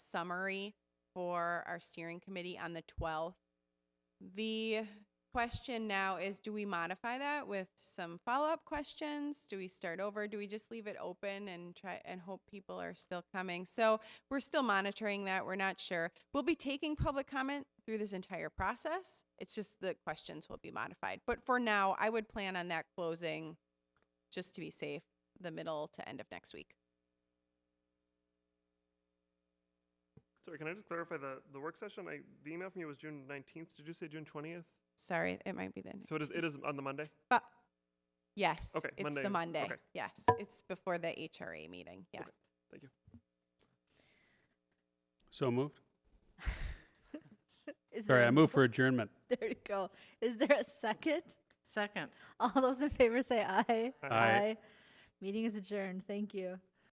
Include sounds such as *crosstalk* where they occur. summary for our steering committee on the 12th. The question now is, do we modify that with some follow-up questions? Do we start over? Do we just leave it open and try and hope people are still coming? So we're still monitoring that. We're not sure. We'll be taking public comment through this entire process. It's just the questions will be modified. But for now, I would plan on that closing, just to be safe, the middle to end of next week. Sorry, can I just clarify the, the work session? I, the email from you was June nineteenth. Did you say June twentieth? Sorry, it might be the next. So it is it is on the Monday. But yes, Okay, it's Monday. the Monday. Okay. Yes, it's before the HRA meeting. Yes. So moved. Sorry, Is there I a- move for adjournment. *laughs* There you go. Is there a second? *laughs* Second. All those in favor say aye. Aye. Aye. Meeting is adjourned. Thank you.